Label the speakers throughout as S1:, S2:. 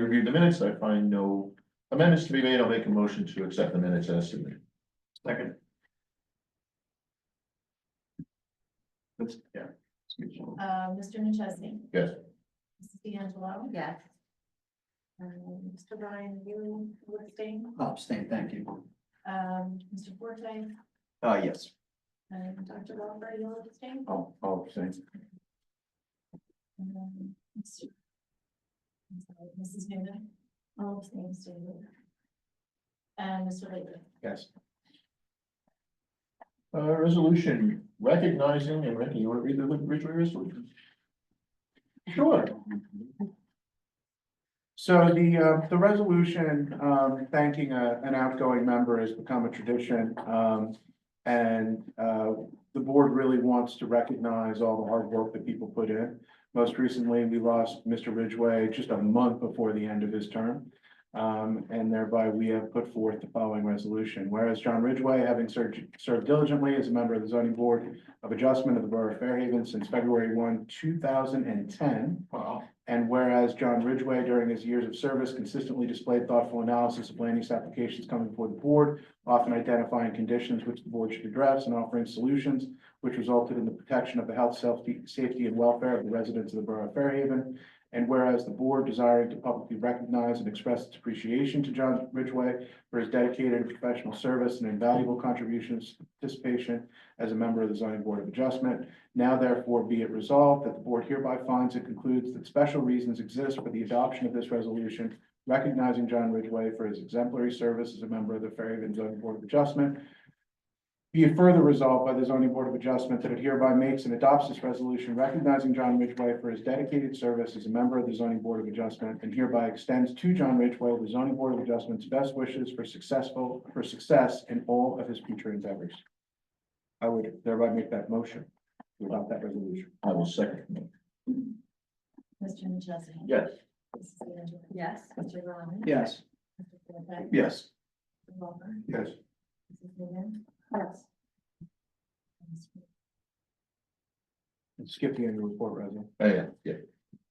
S1: reviewed the minutes, I find no amendments to be made, I'll make a motion to accept the minutes as submitted. Second. That's, yeah.
S2: Uh, Mr. McChesney?
S1: Yes.
S2: Mrs. D'Angelo?
S3: Yes.
S2: Um, Mr. Brian, you abstain?
S4: I'll abstain, thank you.
S2: Um, Mr. Forte
S4: Uh, yes.
S2: and Dr. Walker, you abstain?
S4: I'll, I'll abstain.
S2: And then Mr. I'm sorry, Mrs. Newman? All abstain, Mr. Newman. And Mr. Laker?
S4: Yes.
S1: Uh, resolution recognizing, and Randy, you wanna read the original resolution?
S5: Sure. So the, uh, the resolution, um, thanking a- an outgoing member has become a tradition. Um, and, uh, the board really wants to recognize all the hard work that people put in. Most recently, we lost Mr. Ridgway just a month before the end of his term. Um, and thereby we have put forth the following resolution. Whereas John Ridgway, having served, served diligently as a member of the zoning board of adjustment of the Borough of Fairhaven since February one, two thousand and ten,
S1: Wow.
S5: and whereas John Ridgway during his years of service consistently displayed thoughtful analysis of land use applications coming before the board, often identifying conditions which the board should address and offering solutions which resulted in the protection of the health, safety, safety and welfare of the residents of the borough of Fairhaven. And whereas the board desiring to publicly recognize and express its appreciation to John Ridgway for his dedicated and professional service and invaluable contributions, participation as a member of the zoning board of adjustment, now therefore be it resolved that the board hereby finds and concludes that special reasons exist for the adoption of this resolution, recognizing John Ridgway for his exemplary service as a member of the Fairhaven zoning board of adjustment. Be it further resolved by the zoning board of adjustment that it hereby makes and adopts this resolution recognizing John Ridgway for his dedicated service as a member of the zoning board of adjustment and hereby extends to John Ridgway the zoning board of adjustment's best wishes for successful, for success in all of his future endeavors. I would thereby make that motion to adopt that resolution.
S1: I will second.
S2: Mr. McChesney?
S1: Yes.
S2: Mrs. D'Angelo?
S3: Yes.
S2: Mr. Ryan?
S4: Yes.
S2: Mr. Forte?
S5: Yes.
S2: Mr. Walker?
S5: Yes.
S2: Mrs. Newman?
S3: Yes.
S2: And Mr.
S5: Skip the annual report, Rosie.
S1: Oh, yeah, yeah.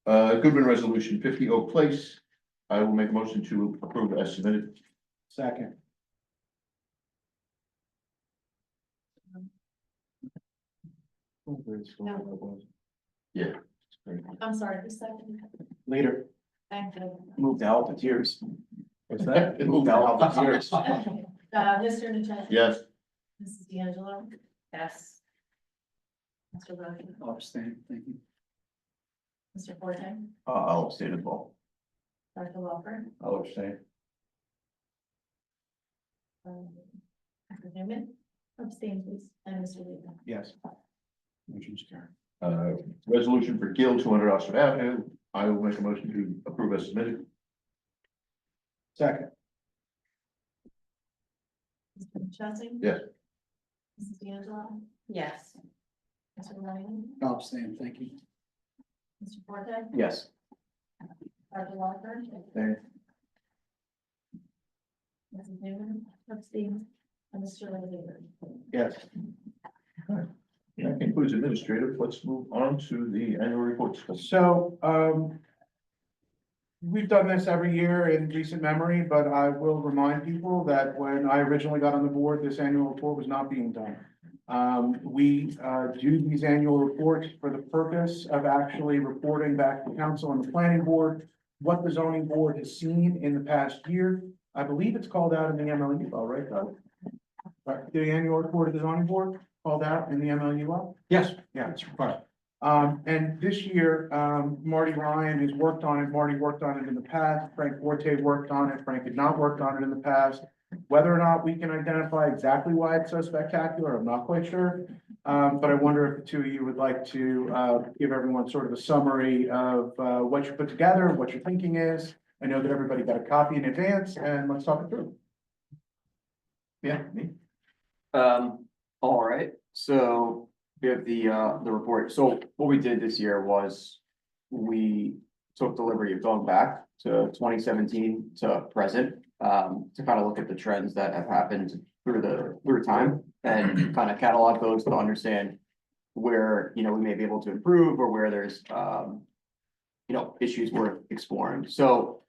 S1: Uh, Goodman Resolution fifty Oak Place, I will make a motion to approve as submitted.
S5: Second.
S2: I'm sorry, who seconded?
S4: Later,
S2: Thank you.
S4: move to help with yours.
S5: What's that?
S4: Move to help with yours.
S2: Okay. Uh, Mr. Nuchesny?
S1: Yes,
S2: Mrs. D'Angelo?
S3: Yes.
S2: Mr. Ryan?
S4: I'll abstain, thank you.
S2: Mr. Forte?
S4: Uh, I'll abstain as well.
S2: Dr. Walker?
S4: I'll abstain.
S2: um, Dr. Newman? Abstain, please. And Mr. Lehman?
S5: Yes.
S4: Motion's carried.
S1: uh, resolution for Gill, two hundred Oxford Avenue, I will make a motion to approve as submitted.
S5: Second.
S2: Mr. Nuchesny?
S1: Yes.
S2: Mrs. D'Angelo?
S3: Yes.
S2: Mr. Ryan?
S4: I'll abstain, thank you.
S2: Mr. Forte?
S4: Yes.
S2: Dr. Walker?
S4: Thank
S2: Mrs. Newman? Abstain. And Mr. Lehman?
S5: Yes.
S1: That concludes administrative, let's move on to the annual reports.
S5: So, um. We've done this every year in recent memory, but I will remind people that when I originally got on the board, this annual report was not being done. Um, we, uh, do these annual reports for the purpose of actually reporting back to council and the planning board. What the zoning board has seen in the past year. I believe it's called out in the MLU, all right, Doug? Right, the annual report of the zoning board called out in the MLU?
S4: Yes.
S5: Yeah, it's required. Um, and this year, um, Marty Ryan has worked on it, Marty worked on it in the past, Frank Forte worked on it, Frank had not worked on it in the past. Whether or not we can identify exactly why it's so spectacular, I'm not quite sure. Um, but I wonder if the two of you would like to, uh, give everyone sort of a summary of, uh, what you put together, what your thinking is. I know that everybody got a copy in advance, and let's talk it through. Yeah, me?
S6: Um, all right, so we have the, uh, the report. So what we did this year was we took the liberty of going back to twenty seventeen to present, um, to kind of look at the trends that have happened through the, through time and kind of catalog those to understand where, you know, we may be able to improve or where there's, um, you know, issues worth exploring. So